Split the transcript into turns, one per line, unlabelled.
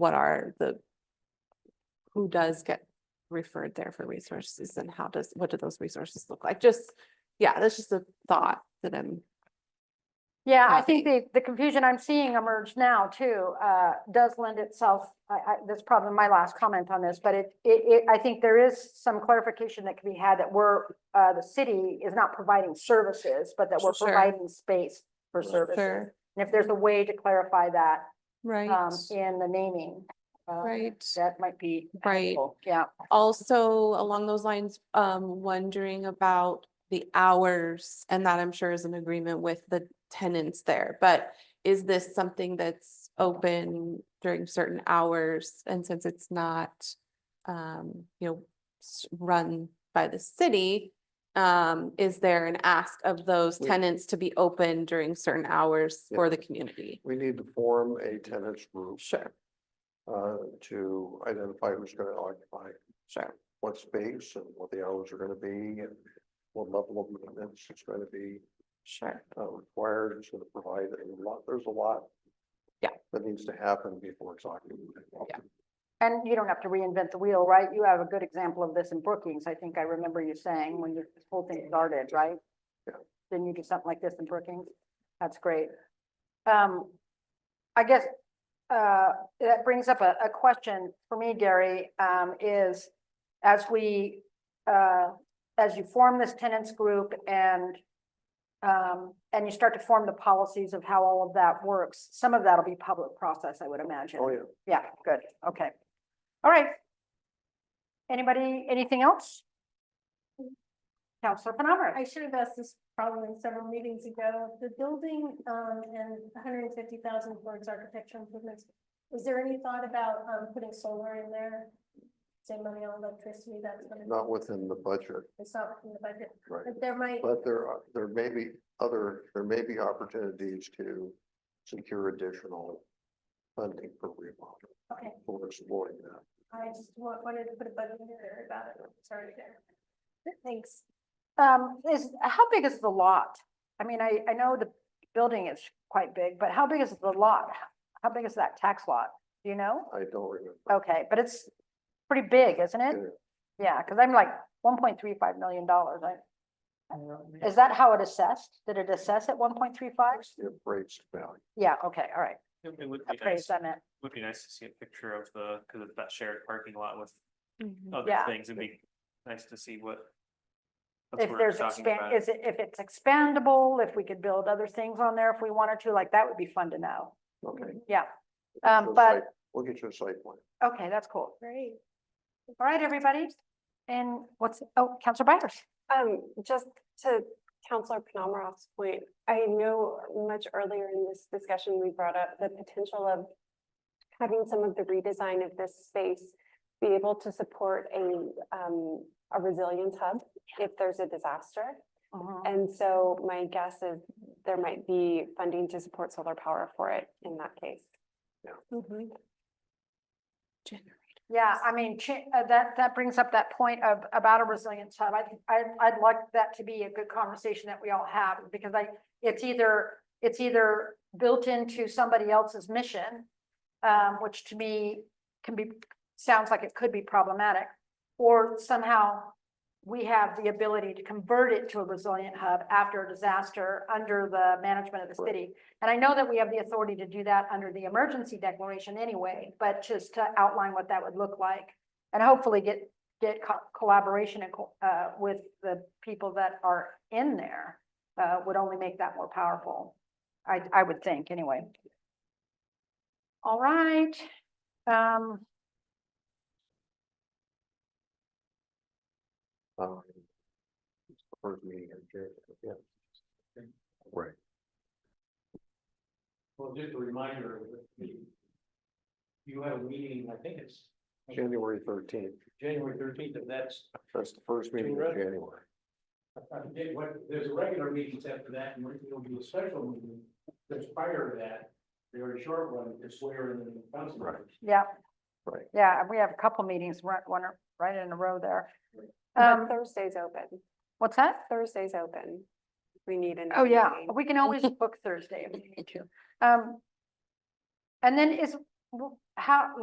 what are the, who does get referred there for resources and how does, what do those resources look like? Just, yeah, that's just a thought that I'm,
Yeah, I
happy.
think the, the confusion I'm seeing emerge now too, uh, does lend itself, I, I, that's probably my last comment on this, but it, it, it, I think there is some clarification that can be had that we're, uh, the city is not providing services, but that we're
Sure.
providing space for services.
sure,
And if there's a way to clarify that,
right,
um, in the naming, uh,
right.
that might be
Right.
helpful, yeah.
Also, along those lines, um, wondering about the hours, and that I'm sure is an agreement with the tenants there, but is this something that's open during certain hours? And since it's not, um, you know, s- run by the city, um, is there an ask of those
We-
tenants to be open during certain hours
Yeah.
for the community?
We need to form a tenants group
Sure,
uh to identify who's gonna occupy
sure,
what space and what the hours are gonna be and what level of maintenance is gonna be
sure,
uh required, it's gonna provide a lot, there's a lot.
Yeah.
That needs to happen before it's occupied.
Yeah.
And you don't have to reinvent the wheel, right? You have a good example of this in Brookings. I think I remember you saying when this whole thing started, right?
Yeah.
Didn't you do something like this in Brookings? That's great. Um, I guess, uh, that brings up a, a question for me, Gary, um, is as we, uh, as you form this tenants group and um, and you start to form the policies of how all of that works, some of that'll be public process, I would imagine.
Oh, yeah,
Yeah, good, okay. All right. Anybody, anything else? Counselor
I
Penamara,
should have asked this probably several meetings ago. The building um and hundred and fifty thousand towards architecture improvements. Was there any thought about um putting solar in there? Save money on electricity, that's what it-
not within the budget,
it's not in the budget,
right?
but there might,
But there are, there may be other, there may be opportunities to secure additional funding for remodel.
okay,
We're exploring that.
I just wa- wanted to put a button in there about it. Sorry there. Thanks.
um, is, how big is the lot? I mean, I, I know the building is quite big, but how big is the lot? How big is that tax lot? Do you know?
I don't remember.
Oh.
Okay, but it's pretty big, isn't it? Yeah, because I'm like one point three five million dollars, I, is that how it assessed? Did it assess at one point three five?
It's the appraised value.
Yeah, okay, all right,
It it would be nice,
appraised, I meant,
would be nice to see a picture of the, because it's that shared parking lot with
Mhm.
other
Yeah.
things, it'd be nice to see what. that's
if
what we're
there's
talking
expand,
about.
is it, if it's expandable, if we could build other things on there if we wanted to, like, that would be fun to know.
Okay.
Yeah,
We'll get
Um,
you a
but-
site- We'll get you a site plan.
okay, that's cool.
Great.
All right, everybody, and what's, oh, Counselor Byers,
Um, just to Counselor Penamroff's point, I know much earlier in this discussion, we brought up the potential of having some of the redesign of this space be able to support a, um, a resilience hub if there's a disaster.
Mhm.
And so my guess is there might be funding to support solar power for it in that case.
Generous.
Yeah, I mean, cha- uh, that, that brings up that point of, about a resilience hub. I, think- I, I'd like that to be a good conversation that we all have, because I, it's either, it's either built into somebody else's mission, um, which to me can be, sounds like it could be problematic, or somehow we have the ability to convert it to a resilient hub after a disaster under the management of the
Right.
city. And I know that we have the authority to do that under the emergency declaration anyway, but just to outline what that would look like. And hopefully get, get co- collaboration and, co- uh, with the people that are in there, uh, would only make that more powerful. I, I would think, anyway. All right, um,
Um, it's the First meeting in January, yeah. Right.
Well, just a reminder, that the- you have a meeting, I think it's
January thirteenth,
January thirteenth, if that's,
that's the first meeting in
Correct.
January.
I forget what, there's a regular meetings after that, and there'll be a special meeting that's prior to that. They're a short one, to swear in the council. members.
yeah.
Right.
Yeah, we have a couple meetings, right, one, right in a row there.
But
Um,
Thursday's open,
what's that?
Thursday's open. We need an.
Oh, yeah, we can always book Thursday if we need to. Um, and then is, w- how,